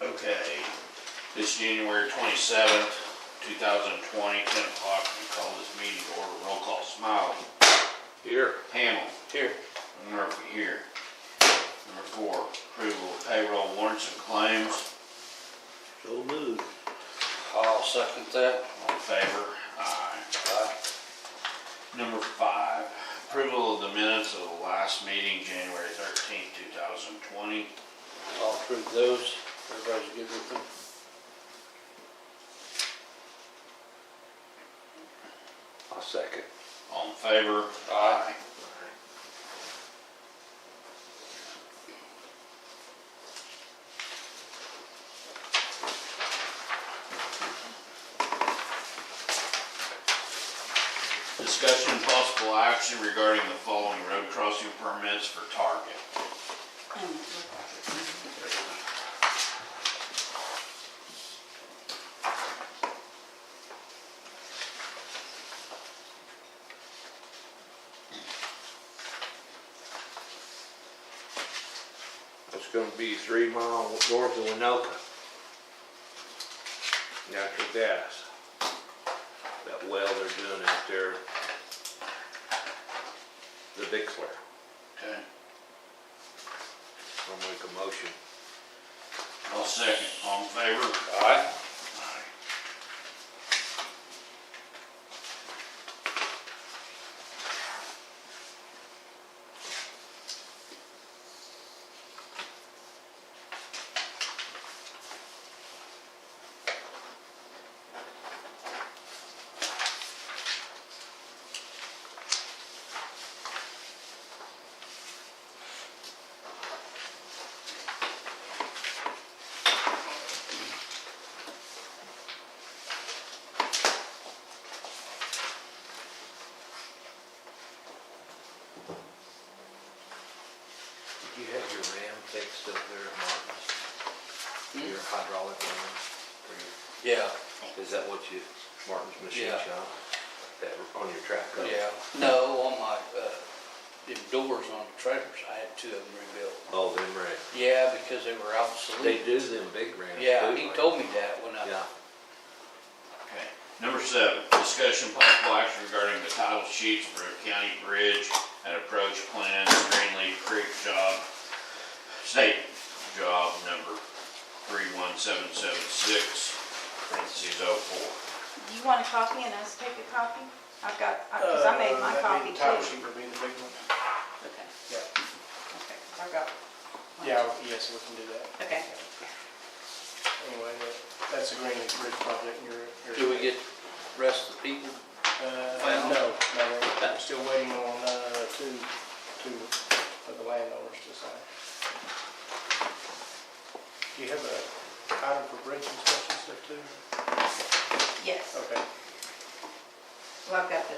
Okay, this January twenty-seventh, two thousand twenty, ten o'clock, we call this meeting to order, roll call, Smiley, Here. Hamel, Here. Murphy here. Number four, approval of payroll warrants and claims, So moved. I'll second that. all in favor? Aye. Aye. Number five, approval of the minutes of the last meeting, January thirteenth, two thousand twenty. I'll approve those. Everybody's good with them? I'll second. All in favor? Aye. Discussion and possible action regarding the following road crossing permits for Target. It's gonna be three mile north of Winoka. Natural gas. That well they're doing out there. The big flare. Okay, I'll make a motion. I'll second. All in favor? Aye. Aye. Did you have your ram fixed up there at Martin's? Hmm? Your hydraulic ram? for your- Yeah, Is that what you, Martin's machine Yeah. shop? That, on your track? huh? yeah. No, on my, uh, the doors on the trailers, I had two of them rebuilt. Oh, them rams. Yeah, because they were They obsolete. do them big rams too. Yeah, he like- told me that when I, Yeah. Okay. Number seven, discussion and possible action regarding the title sheets for a county bridge and approach plan, Greenleaf Creek job, state job number three one seven seven six, parentheses oh four. Do you want a copy and us take a copy? I've got, because I made my Uh, that'd copy be too. the Title sheet would be the big one. Okay, Yeah, okay, I've got. one. yeah, yes, we can do that. Okay, Anyway, that- that's a Greenleaf Bridge project in your area. do we get the rest of the people? Uh, Well- no, no, we're still waiting on, uh, two, two of the landowners to sign. Do you have a item for bridge inspection stuff too? yes. Okay, Well, I've got the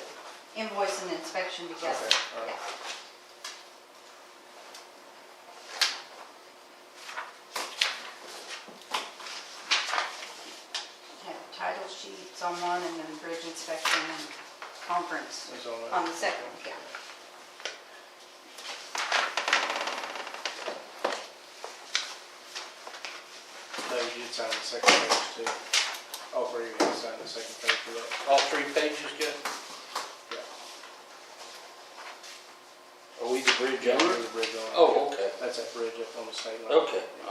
invoice and inspection together. Okay, all right. Yeah. Have title sheets on one and then bridge inspection and conference it's on. on the second, yeah. No, you did sign the second page too. All three of you have signed the second page for that. All three pages good? Are we the bridge Yeah, owner? the bridge on. Oh, okay, That's that bridge up on the state line. okay. Uh,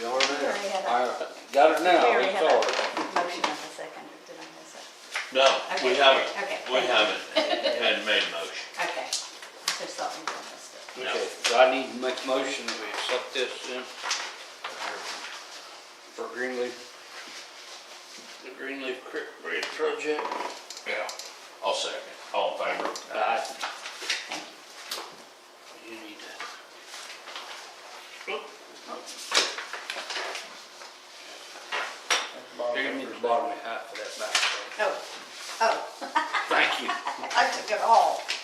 You are there. already had All right, got it now, Mary it's had a- all right. Motion on the second, or did I miss it? No, we Okay, haven't, okay, we thank you. haven't, hadn't made a motion. Okay, I just thought we missed it. No. Okay, do I need to make a motion that we accept this then? For Greenleaf? The Greenleaf Creek Bridge project? Yeah. I'll second. All in favor? Aye. Uh, You need to. Bottom You're gonna need the bottom half of that back. Oh, oh, Thank you. I took it all.